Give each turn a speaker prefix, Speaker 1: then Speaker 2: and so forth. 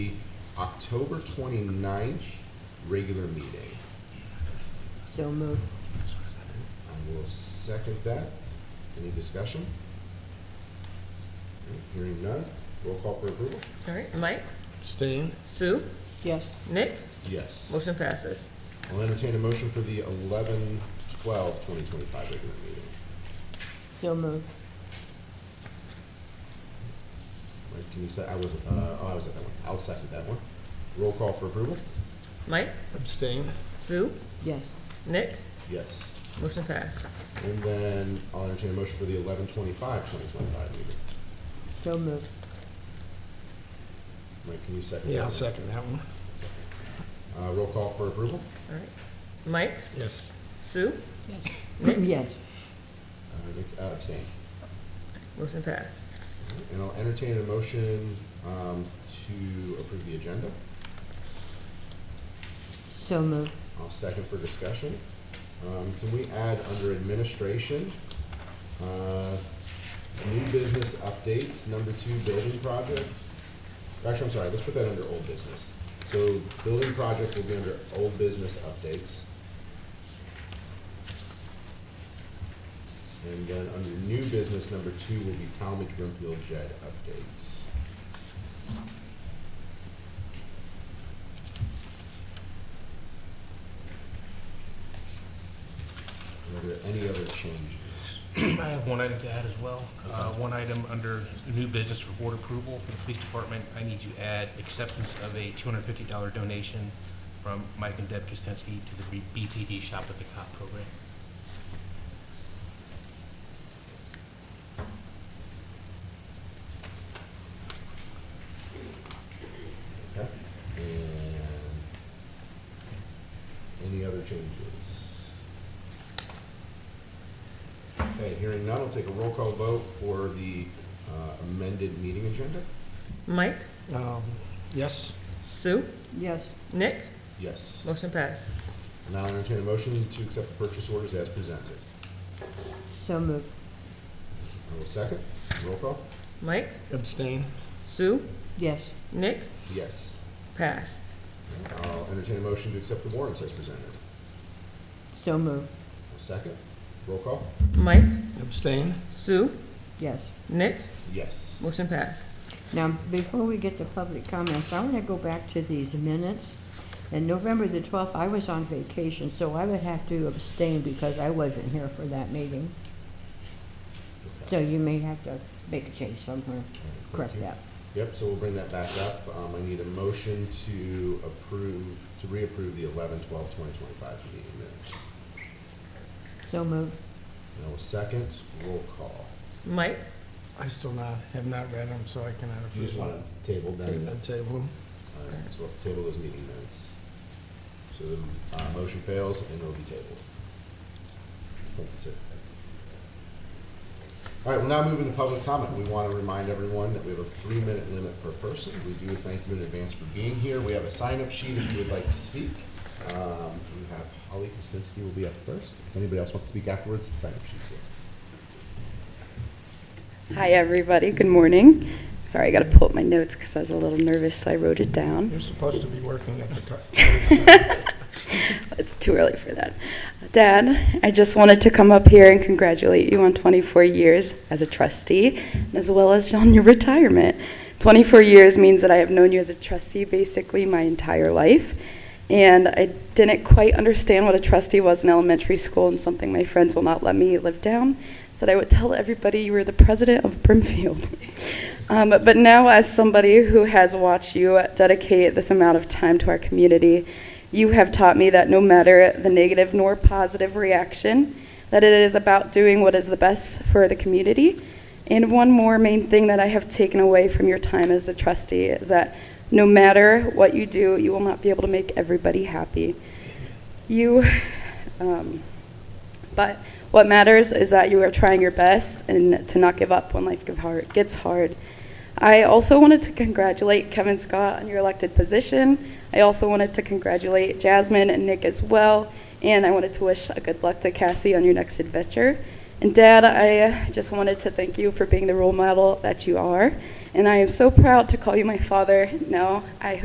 Speaker 1: October 29th, regular meeting.
Speaker 2: So move.
Speaker 1: I will second that. Any discussion? All right, Hearing none, roll call for approval?
Speaker 3: All right, Mike,
Speaker 4: Abstain.
Speaker 3: Sue,
Speaker 2: Yes.
Speaker 3: Nick,
Speaker 1: Yes.
Speaker 3: motion passes.
Speaker 1: I'll entertain a motion for the 11-12-2025 regular meeting.
Speaker 2: So move.
Speaker 1: Mike, can you say, I was, uh, oh, I was at that one. I'll second that one. Roll call for approval?
Speaker 3: Mike,
Speaker 4: Abstain.
Speaker 3: Sue,
Speaker 2: Yes.
Speaker 3: Nick,
Speaker 1: Yes.
Speaker 3: motion passes.
Speaker 1: And then I'll entertain a motion for the 11-25-2025 meeting.
Speaker 2: So move.
Speaker 1: Mike, can you second that?
Speaker 4: Yeah, I'll
Speaker 1: one?
Speaker 4: second that one.
Speaker 1: Uh, roll call for approval?
Speaker 3: All right, Mike,
Speaker 4: Yes.
Speaker 3: Sue,
Speaker 2: Yes. Yes.
Speaker 1: Uh, Nick, uh, abstain.
Speaker 3: motion passed.
Speaker 1: And I'll entertain a motion um, to approve the agenda.
Speaker 2: So move.
Speaker 1: I'll second for discussion. Um, Can we add under administration, uh, new business updates, number two, building project? Actually, I'm sorry, let's put that under old business. So building project will be under old business updates. And then under new business, number two will be Talmadge Brimfield JED updates. Are there any other changes?
Speaker 5: I have one item to add as well. Uh, One item under new business report approval for the police department, I need to add acceptance of a $250 donation from Mike and Deb Kostensky to the B- BPD Shop at the Cop program.
Speaker 1: Okay, and any other changes? Okay, hearing none, I'll take a roll call vote for the uh, amended meeting agenda.
Speaker 3: Mike,
Speaker 4: Um, Yes.
Speaker 3: Sue,
Speaker 2: Yes.
Speaker 3: Nick,
Speaker 1: Yes,
Speaker 3: motion passed.
Speaker 1: and I'll entertain a motion to accept the purchase orders as presented.
Speaker 2: So move.
Speaker 1: I will second, roll call,
Speaker 3: Mike,
Speaker 4: Abstain.
Speaker 3: Sue,
Speaker 2: Yes.
Speaker 3: Nick,
Speaker 1: yes.
Speaker 3: pass.
Speaker 1: I'll entertain a motion to accept the warrants as presented.
Speaker 2: So move.
Speaker 1: I'll second, roll call,
Speaker 3: Mike,
Speaker 4: Abstain.
Speaker 3: Sue,
Speaker 2: Yes.
Speaker 3: Nick,
Speaker 1: yes.
Speaker 3: motion passed.
Speaker 2: Now, before we get to public comments, I want to go back to these minutes. And November the 12th, I was on vacation, so I would have to abstain because I wasn't here for that meeting. So
Speaker 1: Okay.
Speaker 2: you may have to make a change somewhere,
Speaker 1: All right, thank
Speaker 2: correct
Speaker 1: you.
Speaker 2: that.
Speaker 1: Yep, so we'll bring that back up. Um, I need a motion to approve, to reapprove the 11-12-2025 meeting minutes.
Speaker 2: So move.
Speaker 1: And I will second, roll call.
Speaker 3: Mike,
Speaker 4: I still not, have not read them, so I cannot approve. them.
Speaker 1: Table them,
Speaker 4: I table them.
Speaker 1: all right, so we'll have to table those meeting minutes. So the, uh, motion fails and it'll be tabled. I think that's it. All right, we'll now move into public comment. We want to remind everyone that we have a three-minute limit per person. We do thank you in advance for being here. We have a sign-up sheet if you would like to speak. Um, We have Holly Kostinsky will be up first. If anybody else wants to speak afterwards, the sign-up sheet's here.
Speaker 6: Hi, everybody. Good morning. Sorry, I got to pull up my notes because I was a little nervous, so I wrote it down.
Speaker 4: You're supposed to be working at the car.
Speaker 6: It's too early for that. Dad, I just wanted to come up here and congratulate you on 24 years as a trustee, as well as on your retirement. 24 years means that I have known you as a trustee basically my entire life. And I didn't quite understand what a trustee was in elementary school, and something my friends will not let me live down. Said I would tell everybody you were the president of Brimfield. Um, but now, as somebody who has watched you dedicate this amount of time to our community, you have taught me that no matter the negative nor positive reaction, that it is about doing what is the best for the community. And one more main thing that I have taken away from your time as a trustee is that no matter what you do, you will not be able to make everybody happy. You, um, but what matters is that you are trying your best and to not give up when life give hard, gets hard. I also wanted to congratulate Kevin Scott on your elected position. I also wanted to congratulate Jasmine and Nick as well. And I wanted to wish a good luck to Cassie on your next adventure. And Dad, I uh, just wanted to thank you for being the role model that you are. And I am so proud to call you my father. Now, I